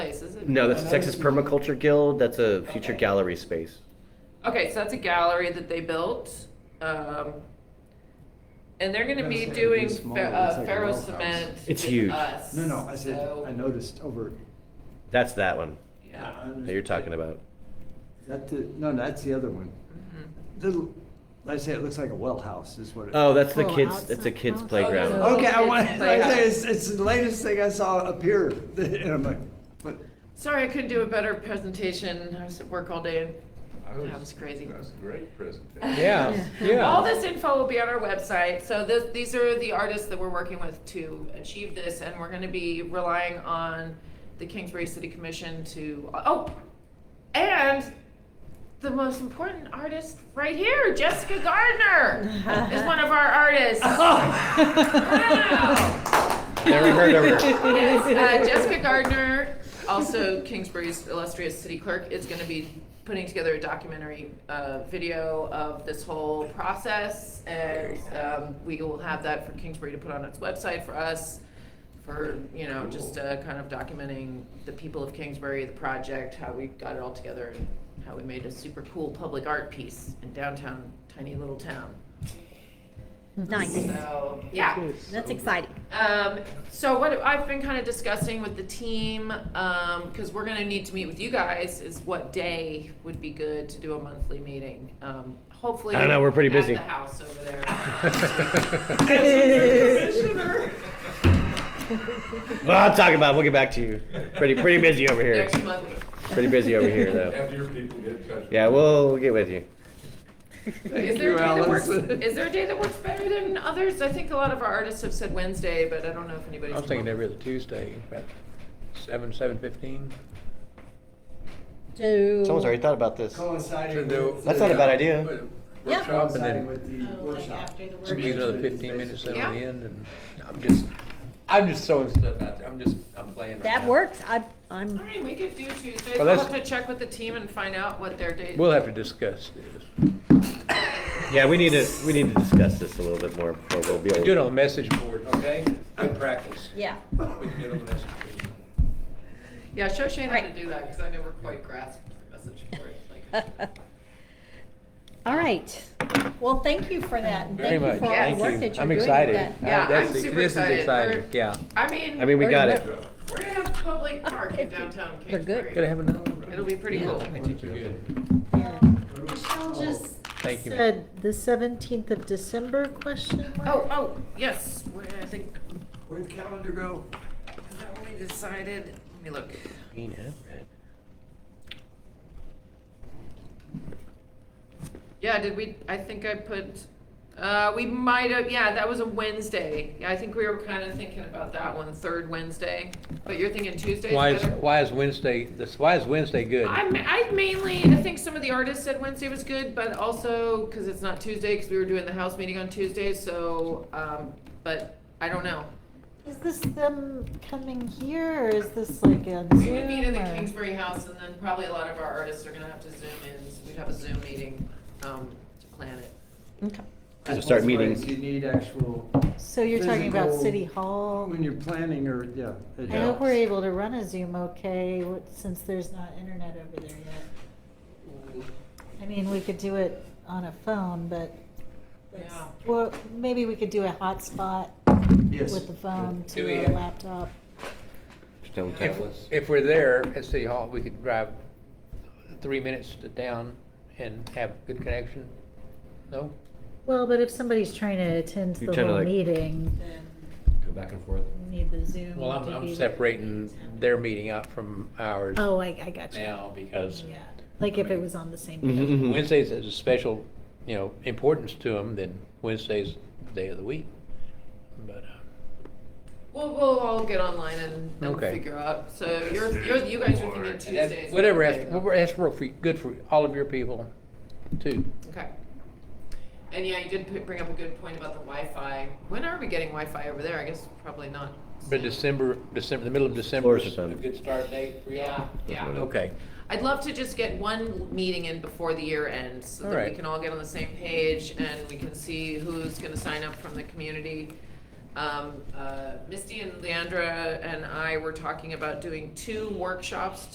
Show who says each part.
Speaker 1: is it?
Speaker 2: No, that's the
Speaker 1: another-
Speaker 2: Texas Permaculture Guild. That's a future
Speaker 1: Okay.
Speaker 2: gallery space.
Speaker 1: Okay, so that's a gallery that they built. Um, and they're gonna be
Speaker 3: That's- it'd be
Speaker 1: doing
Speaker 3: small,
Speaker 1: fer-
Speaker 3: it's
Speaker 1: uh,
Speaker 3: like a
Speaker 1: ferro
Speaker 3: wellhouse.
Speaker 1: cement.
Speaker 2: It's
Speaker 1: with
Speaker 2: huge.
Speaker 1: us,
Speaker 3: No, no, I said,
Speaker 1: so-
Speaker 3: I noticed over.
Speaker 2: That's that one
Speaker 1: Yeah.
Speaker 2: that you're talking about.
Speaker 3: That, the- no, that's the other one.
Speaker 1: Mhm.
Speaker 3: Little, I say it looks like a well house is what it.
Speaker 2: Oh, that's the
Speaker 4: Oh,
Speaker 2: kids. That's a
Speaker 4: outside.
Speaker 2: kids
Speaker 4: Oh,
Speaker 2: playground.
Speaker 1: no.
Speaker 3: Okay, I
Speaker 1: it's
Speaker 3: want,
Speaker 1: like
Speaker 3: I
Speaker 1: a-
Speaker 3: say, it's, it's the latest thing I saw appear, and I'm like, but.
Speaker 1: Sorry, I couldn't do a better presentation. I was at work all day. That was crazy.
Speaker 5: That was a great presentation.
Speaker 6: Yeah, yeah.
Speaker 1: All this info will be on our website. So this, these are the artists that we're working with to achieve this, and we're going to be relying on the Kingsbury City Commission to. Oh, and the most important artist right here, Jessica Gardner, is one of our artists. Wow.
Speaker 2: Never heard of her.
Speaker 1: Yes, uh, Jessica Gardner, also Kingsbury's illustrious city clerk, is going to be putting together a documentary uh, video of this whole process, and um, we will have that for Kingsbury to put on its website for us, for you know, just uh, kind of documenting the people of Kingsbury, the project, how we got it all together, and how we made a super cool public art piece in downtown, tiny little town.
Speaker 4: Nice.
Speaker 1: So yeah.
Speaker 4: That's exciting.
Speaker 1: Um, so what I've been kind of discussing with the team, um, cause we're gonna need to meet with you guys, is what day would be good to do a monthly meeting. Um, hopefully.
Speaker 2: I don't know, we're pretty
Speaker 1: at
Speaker 2: busy.
Speaker 1: the house over there.
Speaker 2: Well, I'll talk about. it. We'll get back to you. Pretty pretty busy over here.
Speaker 1: Next month.
Speaker 2: Pretty busy over here though.
Speaker 5: Have your people get in touch.
Speaker 2: Yeah, we'll get with you.
Speaker 1: Is
Speaker 3: Thank
Speaker 1: there
Speaker 3: you,
Speaker 1: a day that works,
Speaker 3: Allison.
Speaker 1: is there a day that works better than others? I think a lot of our artists have said Wednesday, but I don't know if anybody's.
Speaker 6: I was thinking every other Tuesday, about seven, seven fifteen.
Speaker 4: So.
Speaker 2: Someone's already thought about this.
Speaker 3: Coinciding
Speaker 6: do-
Speaker 3: with
Speaker 2: That's not a bad
Speaker 3: the-
Speaker 2: idea.
Speaker 4: Yeah.
Speaker 6: Workshop and
Speaker 3: Coinciding
Speaker 6: then
Speaker 3: with
Speaker 1: Oh,
Speaker 3: the workshop.
Speaker 6: maybe another fifteen minutes at the
Speaker 1: Yeah.
Speaker 6: end and I'm just, I'm just throwing stuff out there. I'm just, I'm playing. right
Speaker 4: That
Speaker 6: now.
Speaker 4: works. I, I'm.
Speaker 1: All right, we could do Tuesday.
Speaker 6: Well,
Speaker 1: I'll
Speaker 6: that's-
Speaker 1: have to check with the team and find out what their date.
Speaker 6: We'll have to discuss this.
Speaker 2: Yeah, we need to we need to discuss this a little bit more before we'll be able.
Speaker 6: Do it on the message board, okay? Good practice.
Speaker 4: Yeah.
Speaker 6: We can do it on the message board.
Speaker 1: Yeah, show Shane how to
Speaker 4: Right.
Speaker 1: do that, cause I never quite grasped the message for it, like.
Speaker 7: Uh,
Speaker 4: All right. Well, thank you for that. and
Speaker 6: Very
Speaker 4: Thank you
Speaker 6: much.
Speaker 4: for all the
Speaker 6: Thank you.
Speaker 4: work that you're
Speaker 6: I'm
Speaker 4: doing with
Speaker 6: excited.
Speaker 4: that.
Speaker 6: I-
Speaker 1: Yeah,
Speaker 6: that's-
Speaker 1: I'm super
Speaker 6: This is
Speaker 1: excited.
Speaker 6: exciting,
Speaker 1: We're-
Speaker 6: yeah.
Speaker 1: I mean.
Speaker 2: I mean, we got it.
Speaker 5: Yeah.
Speaker 1: We're gonna have a public park in downtown
Speaker 4: They're good.
Speaker 1: Kingsbury.
Speaker 6: Gonna have another. one.
Speaker 1: It'll be pretty cool.
Speaker 4: Yeah.
Speaker 7: Michelle just
Speaker 6: Thank you.
Speaker 7: said the seventeenth of December question mark?
Speaker 1: Oh, oh, yes, where I think,
Speaker 3: Where'd the calendar go?
Speaker 1: is that what we decided? Let me look. Yeah, did we, I think I put, uh, we might have, yeah, that was a Wednesday. Yeah, I think we were kind of thinking about that one, third Wednesday, but you're thinking Tuesday's
Speaker 6: Why is,
Speaker 1: better?
Speaker 6: why is Wednesday, this, why is Wednesday good?
Speaker 1: I, ma- I mainly, I think some of the artists said Wednesday was good, but also, cause it's not Tuesday, cause we were doing the house meeting on Tuesday, so, um, but I don't know.
Speaker 7: Is this them coming here or is this like on
Speaker 1: We
Speaker 7: Zoom?
Speaker 1: would meet in the
Speaker 7: or-
Speaker 1: Kingsbury house and then probably a lot of our artists are gonna have to zoom in, so we'd have a Zoom meeting, um, to plan it.
Speaker 7: Okay.
Speaker 2: Just start meeting.
Speaker 3: You need actual,
Speaker 7: So you're talking about
Speaker 3: Physical-
Speaker 7: City Hall?
Speaker 3: when you're planning or, yeah.
Speaker 7: I
Speaker 3: it
Speaker 7: hope
Speaker 3: helps.
Speaker 7: we're able to run a Zoom okay, what- since there's not internet over there yet. I mean, we could do it on a phone, but, that's-
Speaker 1: Yeah.
Speaker 7: well, maybe we could do a hotspot
Speaker 3: Yes.
Speaker 7: with the phone
Speaker 6: Do we
Speaker 7: to a
Speaker 6: have-
Speaker 7: laptop.
Speaker 2: Stone
Speaker 6: If,
Speaker 2: tablets.
Speaker 6: if we're there at City Hall, we could drive three minutes to down and have good connection? No?
Speaker 7: Well, but if somebody's trying to attend to
Speaker 2: You're
Speaker 7: the
Speaker 2: trying to,
Speaker 7: whole
Speaker 2: like-
Speaker 7: meeting, then
Speaker 2: Go back and forth.
Speaker 7: you need the Zoom.
Speaker 6: Well, I'm,
Speaker 7: to be
Speaker 6: I'm
Speaker 7: there.
Speaker 6: separating their meeting out from ours
Speaker 7: Oh, I, I got you.
Speaker 6: now because
Speaker 7: Yeah, like if it was on the same. day.
Speaker 2: Mm-hmm.
Speaker 6: Wednesdays is a special, you know, importance to them than Wednesday's day of the week. But, uh,
Speaker 1: We'll, we'll all get online and, and
Speaker 6: Okay.
Speaker 1: figure out, so you're, you're, you guys are thinking
Speaker 6: and that-
Speaker 1: Tuesdays.
Speaker 6: whatever,
Speaker 1: okay.
Speaker 6: that's, that's real for, good for all of your people too.
Speaker 1: Okay. And yeah, you did p- bring up a good point about the Wi-Fi. When are we getting Wi-Fi over there? I guess probably not.
Speaker 6: But December, December, the middle of December
Speaker 2: Floor
Speaker 6: is a
Speaker 2: system.
Speaker 6: good start date for
Speaker 1: Yeah,
Speaker 6: y'all.
Speaker 1: yeah.
Speaker 6: Okay.
Speaker 1: I'd love to just get one meeting in before the year ends, so that we
Speaker 6: Alright.
Speaker 1: can all get on the same page and we can see who's gonna sign up from the community. Um, uh, Misty and Leandra and I were talking about doing two workshops